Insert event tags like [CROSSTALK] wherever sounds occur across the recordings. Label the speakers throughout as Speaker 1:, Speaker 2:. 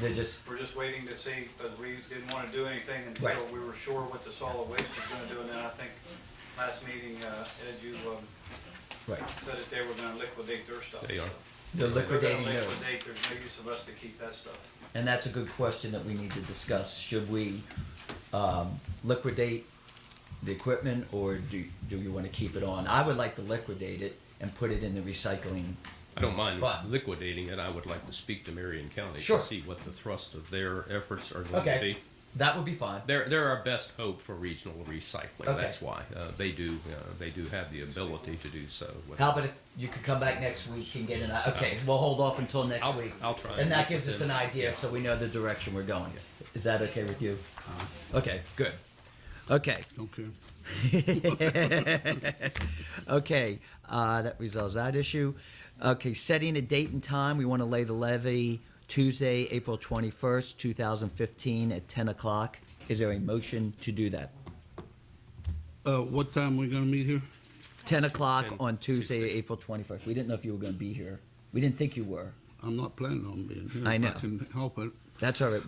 Speaker 1: They're just,
Speaker 2: We're just waiting to see, because we didn't want to do anything until
Speaker 1: Right.
Speaker 2: we were sure what the solid waste was going to do. And then I think last meeting, uh, Ed, you um,
Speaker 1: right,
Speaker 2: said that they were going to liquidate their stuff.
Speaker 3: They
Speaker 2: so
Speaker 3: are.
Speaker 1: they're
Speaker 2: They're going
Speaker 1: liquidating
Speaker 2: to
Speaker 1: theirs.
Speaker 2: liquidate, there's no use of us to keep that stuff.
Speaker 1: And that's a good question that we need to discuss. Should we um, liquidate the equipment or do, do you want to keep it on? I would like to liquidate it and put it in the recycling.
Speaker 3: I don't mind
Speaker 1: Fine.
Speaker 3: liquidating it. I would like to speak to Marion County
Speaker 1: Sure.
Speaker 3: to see what the thrust of their efforts are going to be.
Speaker 1: That would be fine.
Speaker 3: They're, they're our best hope for regional recycling.
Speaker 1: Okay.
Speaker 3: That's why uh, they do uh, they do have the ability to do so. with-
Speaker 1: How about if you could come back next week and get an, uh, okay, we'll hold off until next
Speaker 3: I'll-
Speaker 1: week.
Speaker 3: I'll try
Speaker 1: And
Speaker 3: and
Speaker 1: that
Speaker 3: get
Speaker 1: gives
Speaker 3: with
Speaker 1: us an
Speaker 3: them.
Speaker 1: idea so we know the direction we're going. Is that okay with you?
Speaker 3: Uh-huh.
Speaker 1: Okay, good. Okay.
Speaker 4: Okay.
Speaker 1: Okay, uh, that resolves that issue. Okay, setting a date and time, we want to lay the levy Tuesday, April 21st, 2015 at 10 o'clock. Is there a motion to do that?
Speaker 4: Uh, what time we gonna meet here?
Speaker 1: 10 o'clock
Speaker 3: 10,
Speaker 1: on Tuesday,
Speaker 3: Tuesday.
Speaker 1: April 21st. We didn't know if you were going to be here. We didn't think you were.
Speaker 4: I'm not planning on being here.
Speaker 1: I know.
Speaker 4: If I can help it.
Speaker 1: That's all right.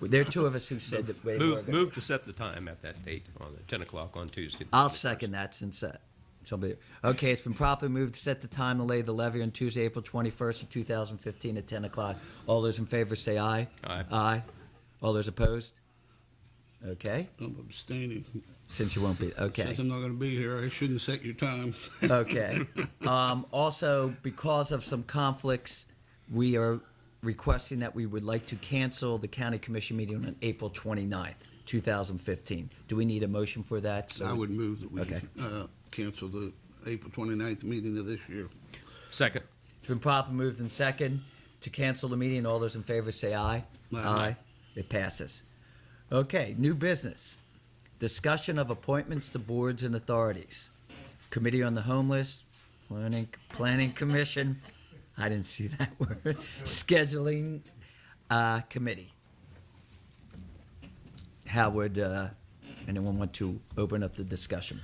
Speaker 1: There are two of us who said that they were
Speaker 3: Move,
Speaker 1: going
Speaker 3: move to set the time at that date on the 10 o'clock on Tuesday.
Speaker 1: I'll second that since uh, somebody. Okay, it's been properly moved to set the time to lay the levy on Tuesday, April 21st, of 2015 at 10 o'clock. All those in favor say aye.
Speaker 3: Aye.
Speaker 1: Aye. All those opposed? Okay,
Speaker 4: I'm abstaining.
Speaker 1: since you won't be. Okay.
Speaker 4: Since I'm not gonna be here, I shouldn't set your time.
Speaker 1: Okay. Um, also, because of some conflicts, we are requesting that we would like to cancel the county commission meeting on April 29th, 2015. Do we need a motion for that? So
Speaker 4: I would move that we,
Speaker 1: Okay.
Speaker 4: uh, cancel the April 29th meeting of this year.
Speaker 3: Second.
Speaker 1: It's been properly moved and second to cancel the meeting. All those in favor say aye.
Speaker 4: Aye.
Speaker 1: It passes. Okay, new business. Discussion of appointments to boards and authorities. Committee on the Homeless, Planning, Planning Commission, I didn't see that [LAUGHS] word, Scheduling uh, Committee. How would uh, anyone want to open up the discussion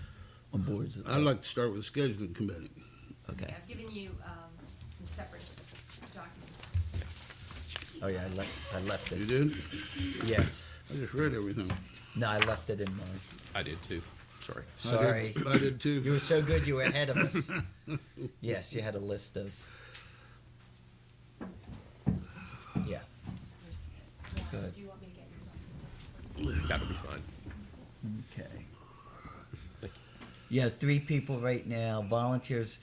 Speaker 1: on boards?
Speaker 4: I'd like to start with the scheduling committee.
Speaker 1: Okay,
Speaker 5: I've given you um, some separate documents.
Speaker 1: oh yeah, I left, I left
Speaker 4: You
Speaker 1: it,
Speaker 4: did?
Speaker 1: yes.
Speaker 4: I just read everything.
Speaker 1: No, I left it in mine.
Speaker 3: I did too. Sorry.
Speaker 4: I did- [LAUGHS]
Speaker 1: Sorry.
Speaker 4: I did
Speaker 1: You were
Speaker 4: too.
Speaker 1: so good, you were ahead of us. Yes, you had a list of. Yeah.
Speaker 5: There's-
Speaker 1: Good.
Speaker 5: Do you want me to get yours off?
Speaker 3: That'll be fine.
Speaker 1: Okay.
Speaker 3: Thank
Speaker 1: You have three people right now, volunteers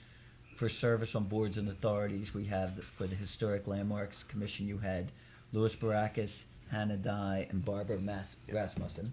Speaker 1: for service on boards and authorities. We have the- for the Historic Landmarks Commission, you had Louis Barakis, Hannah Dye, and Barbara Mas- Rasmussen.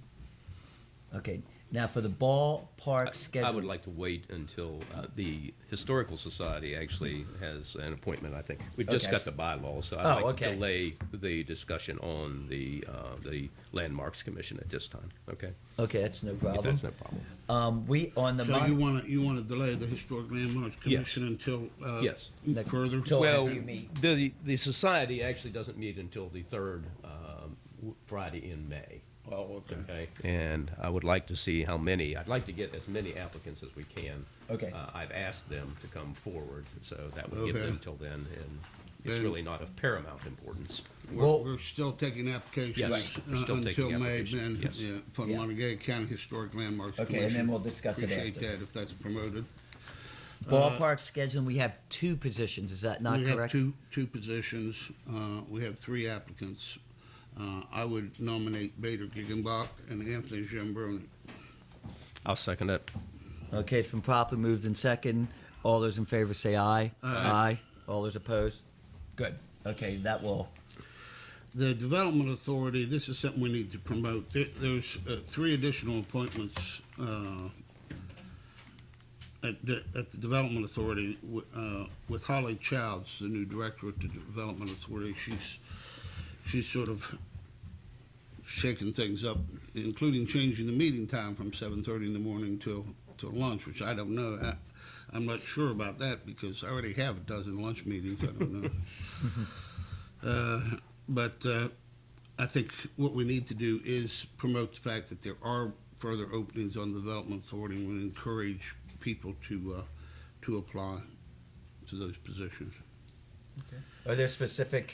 Speaker 1: Okay, now for the ballpark schedule.
Speaker 3: I would like to wait until uh, the Historical Society actually has an appointment, I think. We've just
Speaker 1: Okay.
Speaker 3: got the bylaws, so I'd
Speaker 1: Oh,
Speaker 3: like
Speaker 1: okay.
Speaker 3: to delay the discussion on the, uh, the Landmarks Commission at this time, okay?
Speaker 1: Okay, that's no
Speaker 3: If
Speaker 1: problem.
Speaker 3: that's no problem.
Speaker 1: Um, we, on the.
Speaker 4: So
Speaker 1: mon-
Speaker 4: you wanna, you wanna delay the historic landmarks commission until, uh,
Speaker 3: Yes.
Speaker 1: Next-
Speaker 4: further?
Speaker 1: till
Speaker 3: Well,
Speaker 1: you meet.
Speaker 3: the, the society actually doesn't meet until the third um, w- Friday in May.
Speaker 4: Oh, okay.
Speaker 3: Okay, and I would like to see how many, I'd like to get as many applicants as we can.
Speaker 1: Okay.
Speaker 3: Uh, I've asked them to come forward, so that would give
Speaker 4: Okay.
Speaker 3: them till then, and it's
Speaker 4: Then-
Speaker 3: really not of paramount importance.
Speaker 4: We're,
Speaker 1: Well-
Speaker 4: we're still taking applications.
Speaker 3: Yes, we're
Speaker 4: uh,
Speaker 3: still taking
Speaker 4: Until May,
Speaker 3: applications,
Speaker 4: then,
Speaker 3: yes.
Speaker 4: yeah, from
Speaker 1: Yeah.
Speaker 4: Montague County Historic Landmarks
Speaker 1: Okay, and
Speaker 4: Commission.
Speaker 1: then we'll discuss it
Speaker 4: Appreciate
Speaker 1: after.
Speaker 4: that if that's promoted.
Speaker 1: Ballpark scheduling, we have two positions, is that not
Speaker 4: uh, We have
Speaker 1: correct?
Speaker 4: two, two positions, uh, we have three applicants. Uh, I would nominate Bader Giggenbach and Anthony Jambroni.
Speaker 3: I'll second it.
Speaker 1: Okay, it's been properly moved in second. All those in favor say aye. Aye. All those opposed? Good. Okay, that will,
Speaker 4: The Development Authority, this is something we need to promote. There- There's uh, three additional appointments uh, at the at the Development Authority wi- uh, with Holly Childs, the new director at the Development Authority. She's, she's sort of shaking things up, including changing the meeting time from 7:30 in the morning till, till lunch, which I don't know. I- I'm not sure about that because I already have a dozen lunch meetings. I don't know. Uh, But uh, I think what we need to do is promote the fact that there are further openings on the Development Authority and encourage people to, uh, to apply to those positions.
Speaker 1: are there specific